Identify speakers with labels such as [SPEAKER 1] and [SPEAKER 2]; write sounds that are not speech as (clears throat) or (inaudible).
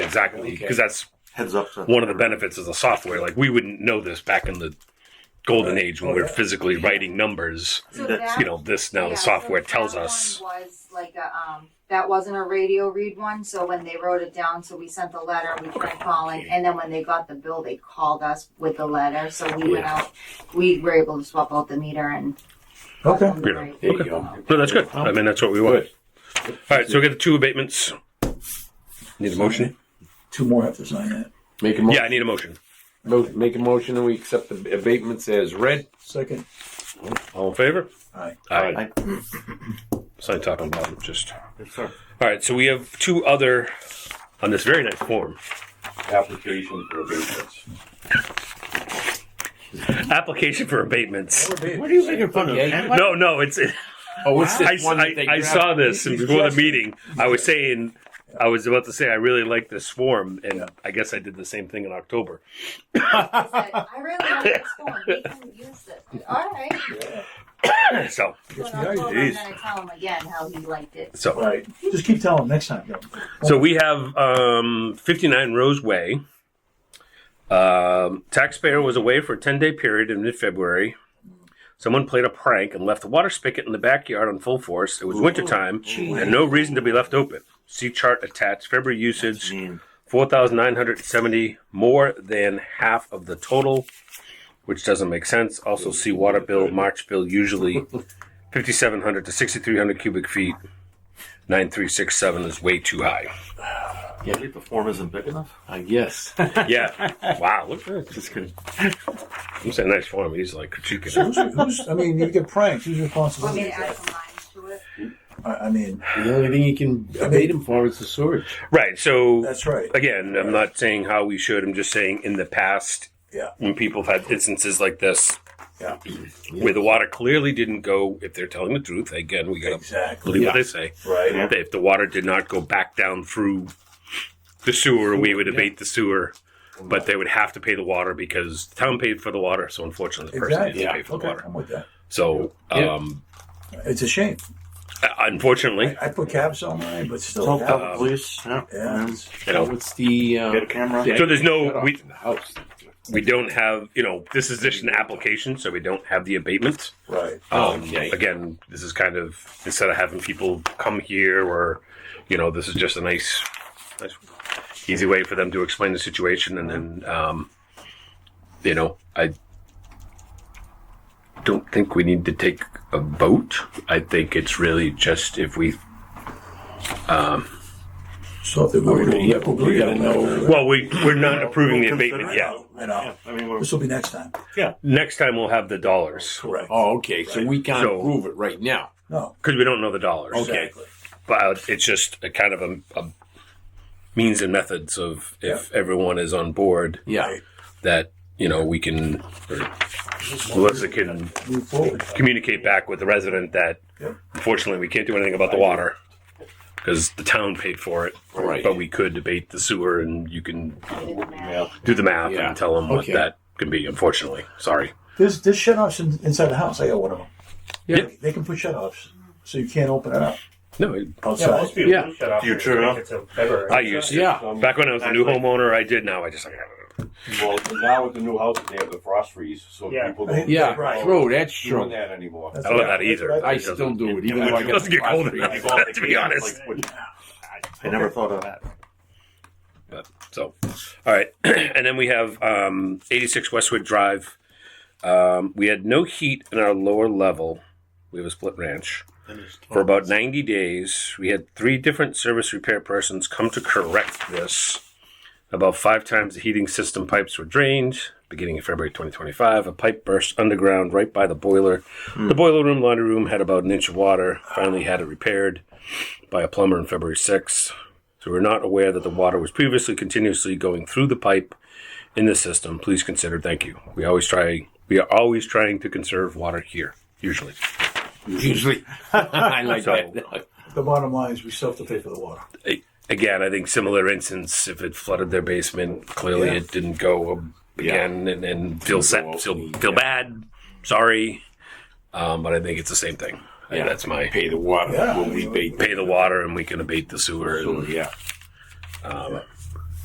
[SPEAKER 1] exactly
[SPEAKER 2] Okay.
[SPEAKER 1] because that's
[SPEAKER 3] Heads up to
[SPEAKER 1] one of the benefits of the software. Like we wouldn't know this back in the golden
[SPEAKER 2] Right.
[SPEAKER 1] age when
[SPEAKER 2] Oh,
[SPEAKER 1] we were
[SPEAKER 2] yeah.
[SPEAKER 1] physically writing numbers.
[SPEAKER 4] So
[SPEAKER 3] That's-
[SPEAKER 4] that,
[SPEAKER 1] You know, this now
[SPEAKER 4] yeah,
[SPEAKER 1] the
[SPEAKER 4] so
[SPEAKER 1] software
[SPEAKER 4] that
[SPEAKER 1] tells
[SPEAKER 4] one
[SPEAKER 1] us.
[SPEAKER 4] Was like a, um, that wasn't a radio read one. So when they wrote it down, so we sent the letter. We tried calling, and then when they got the bill, they called us with the letter. So we went
[SPEAKER 1] Yeah.
[SPEAKER 4] out. We were able to swap out the meter and.
[SPEAKER 2] Okay.
[SPEAKER 1] You know,
[SPEAKER 2] There you
[SPEAKER 1] Okay.
[SPEAKER 2] go.
[SPEAKER 1] No, that's good. I mean, that's what we want. All right, so we got the two abatements. Need a motion?
[SPEAKER 5] Two more have to sign that.
[SPEAKER 2] Make a mo-
[SPEAKER 1] Yeah, I need a motion.
[SPEAKER 2] mo- make a motion and we accept the abatements as read.
[SPEAKER 5] Second,
[SPEAKER 1] All in favor?
[SPEAKER 5] aye.
[SPEAKER 1] Aye.
[SPEAKER 3] Aye.
[SPEAKER 1] Sign top and bottom, just.
[SPEAKER 3] Yes, sir.
[SPEAKER 1] All right, so we have two other on this very nice form.
[SPEAKER 6] application for abatements.
[SPEAKER 1] Application for abatements.
[SPEAKER 7] What are you making fun of?
[SPEAKER 2] Yeah, you-
[SPEAKER 7] Ken? What?
[SPEAKER 1] No, no, it's. It,
[SPEAKER 2] Oh, what's
[SPEAKER 1] I,
[SPEAKER 2] this one that
[SPEAKER 1] I,
[SPEAKER 2] they
[SPEAKER 1] I
[SPEAKER 2] grabbed?
[SPEAKER 1] saw this
[SPEAKER 5] He's
[SPEAKER 1] before the
[SPEAKER 5] just-
[SPEAKER 1] meeting. I was saying, I was about to say, I really like this form, and I guess I did the same thing in October.
[SPEAKER 4] I said, I really like this
[SPEAKER 1] (laughs)
[SPEAKER 4] one. We can use this. All right.
[SPEAKER 1] so,
[SPEAKER 4] So
[SPEAKER 5] Yes,
[SPEAKER 4] when I
[SPEAKER 5] yeah,
[SPEAKER 4] told him,
[SPEAKER 5] geez.
[SPEAKER 4] then I tell him again how he liked it.
[SPEAKER 1] so,
[SPEAKER 5] Right, just keep telling them next time, though.
[SPEAKER 1] so we have um, 59 Rose Way. Um, taxpayer was away for a 10 day period in mid February. Someone played a prank and left the water spigot in the backyard on full force. It was wintertime and no reason to be left open. See chart attached. February usage
[SPEAKER 3] Mean.
[SPEAKER 1] 4,970, more than half of the total, which doesn't make sense. Also, see water bill, March bill, usually 5,700 to 6,300 cubic feet. 9367 is way too high.
[SPEAKER 3] Yeah, the form isn't big enough.
[SPEAKER 2] I guess.
[SPEAKER 1] Yeah. wow. Look at this. I'm saying nice form. He's like critiquing
[SPEAKER 5] Who's, who's, I mean, you get pranked, who's responsible?
[SPEAKER 4] Want me to
[SPEAKER 5] I,
[SPEAKER 4] add some lines to it?
[SPEAKER 5] I mean,
[SPEAKER 2] The only thing you can abate him for is the sewage.
[SPEAKER 1] it. Right. So,
[SPEAKER 5] that's right.
[SPEAKER 1] again, I'm not saying how we should. I'm just saying in the past,
[SPEAKER 5] Yeah.
[SPEAKER 1] when people have had instances like this
[SPEAKER 5] Yeah,
[SPEAKER 1] where the water clearly didn't go, if they're telling the truth, again, we got to
[SPEAKER 5] exactly,
[SPEAKER 1] believe what
[SPEAKER 2] Yeah.
[SPEAKER 1] they say.
[SPEAKER 5] right.
[SPEAKER 1] If the water did not go back down through the sewer, we would abate the sewer, but they would have to pay the water because the town paid for the water. So unfortunately, the person
[SPEAKER 5] Exactly.
[SPEAKER 1] needs to pay
[SPEAKER 2] Yeah.
[SPEAKER 1] for the
[SPEAKER 5] Okay,
[SPEAKER 1] water.
[SPEAKER 5] I'm with that.
[SPEAKER 1] So
[SPEAKER 2] Yeah.
[SPEAKER 1] um,
[SPEAKER 5] It's a shame.
[SPEAKER 1] unfortunately,
[SPEAKER 5] I, I put caps on mine, but still.
[SPEAKER 3] Tell
[SPEAKER 1] uh,
[SPEAKER 5] that-
[SPEAKER 3] tell the police. Yeah.
[SPEAKER 5] Yeah.
[SPEAKER 3] And
[SPEAKER 1] you know,
[SPEAKER 2] What's the uh,
[SPEAKER 3] Get a camera.
[SPEAKER 2] the-
[SPEAKER 1] So there's no-
[SPEAKER 2] shut off
[SPEAKER 1] we-
[SPEAKER 2] in the house.
[SPEAKER 1] we don't have you know this is just an application, so we don't have the abatement.
[SPEAKER 5] Right.
[SPEAKER 3] Oh,
[SPEAKER 1] Um,
[SPEAKER 2] Okay.
[SPEAKER 1] Again, this is kind of instead of having people come here or you know this is just a nice, nice easy way for them to explain the situation and then um, you know I don't think we need to take a vote. I think it's really just if we
[SPEAKER 5] So if they're going to.
[SPEAKER 2] Yeah, but we gotta know.
[SPEAKER 1] well we we're not approving the abatement
[SPEAKER 3] Consider it.
[SPEAKER 1] yet.
[SPEAKER 5] I know.
[SPEAKER 3] Yeah, I mean, we're,
[SPEAKER 5] This will be next time,
[SPEAKER 1] Next time we'll have the dollars
[SPEAKER 5] correct?
[SPEAKER 2] Oh, okay. So we can't
[SPEAKER 1] So-
[SPEAKER 2] prove it right now.
[SPEAKER 5] No,
[SPEAKER 1] because we don't know the dollars.
[SPEAKER 5] exactly.
[SPEAKER 1] but uh, it's just a kind of a, a means and methods of if everyone is on board
[SPEAKER 2] Yeah.
[SPEAKER 1] that you know we can or Melissa can
[SPEAKER 5] Move forward.
[SPEAKER 1] communicate back with the resident that
[SPEAKER 5] Yep.
[SPEAKER 1] unfortunately we can't do anything about the water because the town paid for it
[SPEAKER 2] Right.
[SPEAKER 1] but we could debate the sewer and you can
[SPEAKER 4] Did the math.
[SPEAKER 1] do the math
[SPEAKER 2] Yeah.
[SPEAKER 1] and tell them what
[SPEAKER 2] Okay.
[SPEAKER 1] that can be unfortunately sorry
[SPEAKER 5] There's, there's shut offs in, inside the house. I got one of them.
[SPEAKER 1] Yeah.
[SPEAKER 5] They can put shut offs, so you can't open it up
[SPEAKER 1] no it-
[SPEAKER 6] Yeah,
[SPEAKER 5] outside.
[SPEAKER 6] most people
[SPEAKER 2] Yeah.
[SPEAKER 6] do shut off.
[SPEAKER 3] You turn off?
[SPEAKER 6] It's a February.
[SPEAKER 1] i used to
[SPEAKER 2] Yeah.
[SPEAKER 6] Um,
[SPEAKER 1] back when i was a new
[SPEAKER 6] actually-
[SPEAKER 1] homeowner i did now i just like
[SPEAKER 6] Well, now with the new houses, they have the frost freeze, so
[SPEAKER 5] Yeah.
[SPEAKER 6] people don't.
[SPEAKER 2] Yeah.
[SPEAKER 5] Right.
[SPEAKER 2] Oh, that's
[SPEAKER 6] Doing
[SPEAKER 2] true.
[SPEAKER 6] that anymore.
[SPEAKER 5] That's
[SPEAKER 1] i don't
[SPEAKER 5] what-
[SPEAKER 1] know that either
[SPEAKER 5] that's what
[SPEAKER 2] I still do it, even though I
[SPEAKER 1] (laughs) it doesn't get cold
[SPEAKER 2] got
[SPEAKER 1] enough (laughs) to be honest
[SPEAKER 3] I never thought of that.
[SPEAKER 1] So, all right, (clears throat) and then we have um, 86 Westwood Drive. Um, we had no heat in our lower level. We have a split ranch for about 90 days. We had three different service repair persons come to correct this. About five times the heating system pipes were drained. Beginning of February 2025, a pipe burst underground right by the boiler. The boiler room, laundry room had about an inch of water. Finally, had it repaired by a plumber on February 6th. So we're not aware that the water was previously continuously going through the pipe in the system. Please consider. Thank you. We always try. We are always trying to conserve water here. Usually,
[SPEAKER 2] Usually, (laughs) I like
[SPEAKER 1] So-
[SPEAKER 2] that.
[SPEAKER 5] The bottom line is we still have to pay for the water.
[SPEAKER 1] A- again, I think similar instance. If it flooded their basement, clearly
[SPEAKER 5] Yeah.
[SPEAKER 1] it didn't go um, again, and, and feel
[SPEAKER 2] Well,
[SPEAKER 1] set, feel
[SPEAKER 2] yeah.
[SPEAKER 1] feel bad. Sorry, um, but I think it's the same thing. I-
[SPEAKER 2] Yeah.
[SPEAKER 1] that's my
[SPEAKER 2] Pay the water.
[SPEAKER 5] Yeah.
[SPEAKER 2] We'll rebate.
[SPEAKER 1] pay the water, and we can abate the sewer.
[SPEAKER 2] So,
[SPEAKER 1] And,
[SPEAKER 2] yeah.
[SPEAKER 1] um,